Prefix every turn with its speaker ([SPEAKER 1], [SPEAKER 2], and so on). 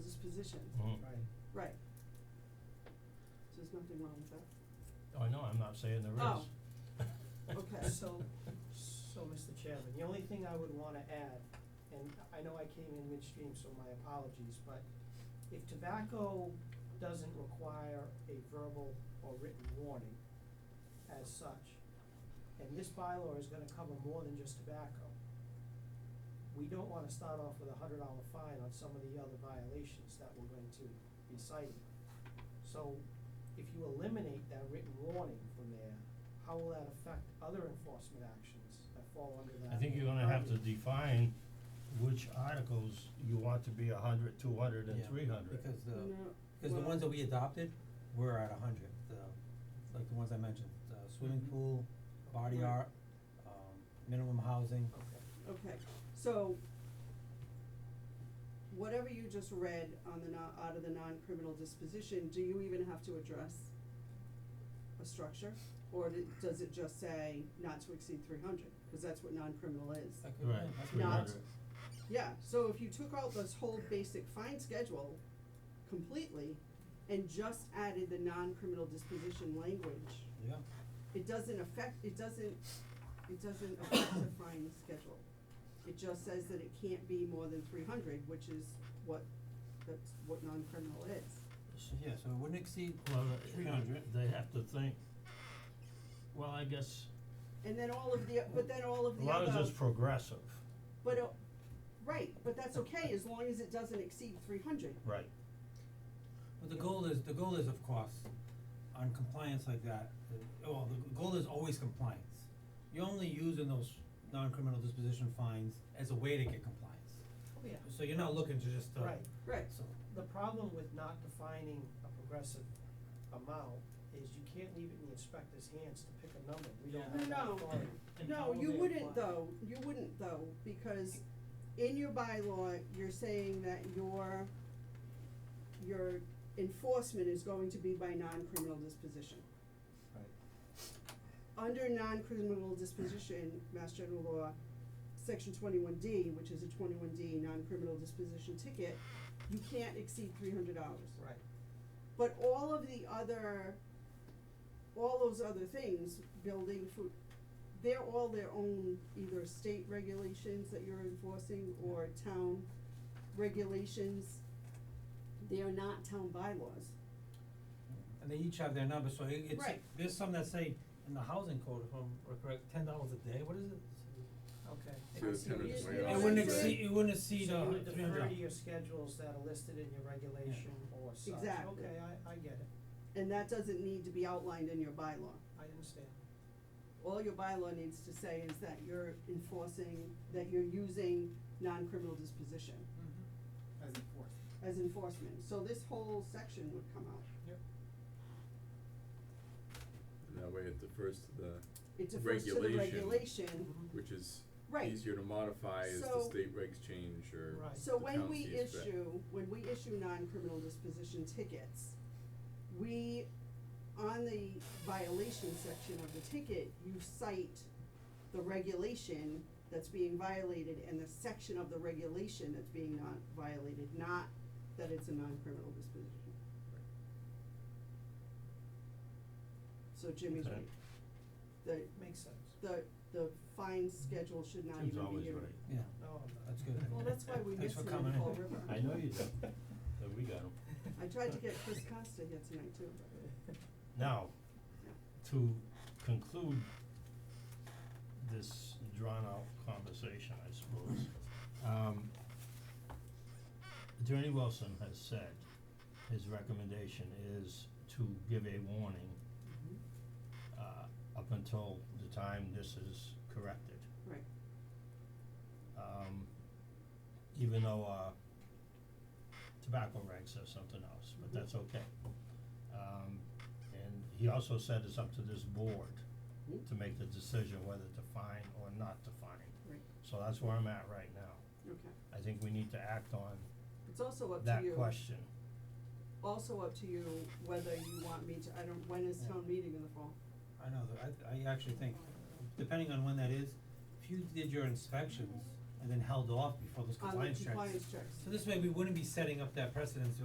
[SPEAKER 1] positions,
[SPEAKER 2] Mhm.
[SPEAKER 3] right,
[SPEAKER 1] right. So There's nothing wrong with that.
[SPEAKER 2] Oh, no, I'm not saying there
[SPEAKER 1] Oh.
[SPEAKER 2] is.
[SPEAKER 1] Okay.
[SPEAKER 3] so, so, Mr. Chairman, the only thing I would wanna add, and I know I came in midstream, so my apologies, but if tobacco doesn't require a verbal or written warning as such, and this bylaw is gonna cover more than just tobacco, we don't wanna start off with a hundred dollar fine on some of the other violations that we're going to be citing. So if you eliminate that written warning from there, how will that affect other enforcement actions that fall under that?
[SPEAKER 2] I think you're gonna have to
[SPEAKER 3] purview?
[SPEAKER 2] define which articles you want to be a hundred, two hundred, and
[SPEAKER 4] Yeah,
[SPEAKER 2] three hundred.
[SPEAKER 4] Because the,
[SPEAKER 1] No,
[SPEAKER 4] because the
[SPEAKER 1] well-
[SPEAKER 4] ones that we adopted were at a hundred, the, like the ones I mentioned, the swimming
[SPEAKER 3] Mhm.
[SPEAKER 4] pool, body
[SPEAKER 1] Mm-hmm. Right.
[SPEAKER 4] art, um, minimum housing.
[SPEAKER 3] Okay.
[SPEAKER 1] Okay, so whatever you just read on the non, out of the non-criminal disposition, do you even have to address a structure? Or d- does it just say not to exceed three hundred, cause that's what non-criminal is.
[SPEAKER 4] That could-
[SPEAKER 2] Right,
[SPEAKER 4] yeah, that could
[SPEAKER 2] three
[SPEAKER 4] be
[SPEAKER 1] Not-
[SPEAKER 2] hundred.
[SPEAKER 4] nice.
[SPEAKER 1] Yeah, so if you took out this whole basic fine schedule completely and just added the non-criminal disposition language,
[SPEAKER 4] Yeah,
[SPEAKER 1] it doesn't affect, it doesn't, it doesn't affect the fine schedule. It just says that it can't be more than three hundred, which is what, that's what non-criminal is.
[SPEAKER 4] So- yeah, so it wouldn't exceed,
[SPEAKER 2] Well, uh,
[SPEAKER 4] Three hundred.
[SPEAKER 2] they have to think, well, I guess,
[SPEAKER 1] And then all of the, but then all of
[SPEAKER 2] as
[SPEAKER 1] the
[SPEAKER 2] long as
[SPEAKER 1] other,
[SPEAKER 2] it's progressive,
[SPEAKER 1] but, uh, right, but that's okay, as long as it doesn't exceed three hundred.
[SPEAKER 2] right,
[SPEAKER 4] but the goal is, the goal is of course, on compliance like that, the, well, the goal is always compliance. You're only using those non-criminal disposition fines as a way to get compliance.
[SPEAKER 3] Oh, yeah.
[SPEAKER 4] So you're not looking to just, uh,
[SPEAKER 3] Right.
[SPEAKER 1] Right,
[SPEAKER 4] so,
[SPEAKER 3] The problem with not defining a progressive amount is you can't leave it in the inspector's hands to pick a number, we don't
[SPEAKER 4] Yeah.
[SPEAKER 3] have that
[SPEAKER 1] No,
[SPEAKER 3] authority.
[SPEAKER 1] no, you wouldn't though, you wouldn't though, because in your bylaw, you're saying that your, your enforcement is going to be by non-criminal disposition.
[SPEAKER 3] Right.
[SPEAKER 1] under non-criminal disposition, Mass General Law, Section twenty-one D, which is a twenty-one D non-criminal disposition ticket, you can't exceed three hundred dollars.
[SPEAKER 3] Right,
[SPEAKER 1] But all of the other, all those other things, building, food, they're all their own either state regulations that you're enforcing or town regulations. They are not town bylaws.
[SPEAKER 4] and they each have their number, so it, it's,
[SPEAKER 1] Right.
[SPEAKER 4] there's some that say in the housing code, if I'm correct, ten dollars a day, what is it?
[SPEAKER 3] okay.
[SPEAKER 5] So it's
[SPEAKER 1] So you-
[SPEAKER 5] $10
[SPEAKER 1] you-
[SPEAKER 5] Yeah,
[SPEAKER 4] It
[SPEAKER 5] I
[SPEAKER 4] wouldn't
[SPEAKER 5] think so.
[SPEAKER 4] exceed, it wouldn't exceed, uh,
[SPEAKER 3] So you would
[SPEAKER 4] three hundred.
[SPEAKER 3] defer to your schedules that are listed in your regulation or such,
[SPEAKER 1] Exactly.
[SPEAKER 3] okay, I, I get it,
[SPEAKER 1] And that doesn't need to be outlined in your bylaw.
[SPEAKER 3] I understand.
[SPEAKER 1] all your bylaw needs to say is that you're enforcing, that you're using non-criminal disposition
[SPEAKER 4] Mm-hmm.
[SPEAKER 3] As enforced.
[SPEAKER 1] as enforcement, so this whole section would come out.
[SPEAKER 3] Yep.
[SPEAKER 5] And That way, at the first, the,
[SPEAKER 1] It's a first to the
[SPEAKER 5] Regulation.
[SPEAKER 1] regulation,
[SPEAKER 3] Mhm.
[SPEAKER 5] which is
[SPEAKER 1] right,
[SPEAKER 5] easier to modify as the
[SPEAKER 1] So-
[SPEAKER 5] state regs change or
[SPEAKER 3] Right.
[SPEAKER 1] so
[SPEAKER 5] the
[SPEAKER 1] when
[SPEAKER 5] town
[SPEAKER 1] we
[SPEAKER 5] sees fit.
[SPEAKER 1] issue, when we issue non-criminal disposition tickets, we, on the violation section of the ticket, you cite the regulation that's being violated and the section of the regulation that's being not violated, not that it's a non-criminal disposition. So Jimmy's
[SPEAKER 2] Okay.
[SPEAKER 1] right. The,
[SPEAKER 3] Makes sense,
[SPEAKER 1] the, the fine schedule should not
[SPEAKER 2] Tim's
[SPEAKER 1] even be
[SPEAKER 2] always
[SPEAKER 1] here.
[SPEAKER 2] right,
[SPEAKER 4] Yeah,
[SPEAKER 3] no, I'm not.
[SPEAKER 4] that's good.
[SPEAKER 1] Well, that's why we
[SPEAKER 4] Thanks
[SPEAKER 1] miss
[SPEAKER 4] for
[SPEAKER 1] him
[SPEAKER 4] coming
[SPEAKER 1] in
[SPEAKER 4] in.
[SPEAKER 1] Fall River.
[SPEAKER 2] I know you do, but we got 'em.
[SPEAKER 1] I tried to get Chris Costa here tonight too, but.
[SPEAKER 2] Now, to conclude this drawn out conversation, I suppose, um, Attorney Wilson has said his recommendation is to give a warning uh up until the time this is corrected.
[SPEAKER 1] Right.
[SPEAKER 2] Um even though uh tobacco reg says something else, but
[SPEAKER 1] Mhm.
[SPEAKER 2] that's okay. Um and he also said it's up to this board
[SPEAKER 1] Mm.
[SPEAKER 2] to make the decision whether to fine or not to fine.
[SPEAKER 1] Right.
[SPEAKER 2] So that's where I'm at right now.
[SPEAKER 1] Okay,
[SPEAKER 2] I think we need to act on
[SPEAKER 1] it's also up to
[SPEAKER 2] that
[SPEAKER 1] you,
[SPEAKER 2] question.
[SPEAKER 1] also up to you whether you want me to, I don't, when is town meeting in the fall?
[SPEAKER 4] I know, that- I, I actually think, depending on when that is, if you did your inspections and then held off before those
[SPEAKER 1] On the
[SPEAKER 4] compliance checks.
[SPEAKER 1] compliance checks.
[SPEAKER 4] So this way, we wouldn't be setting up that precedence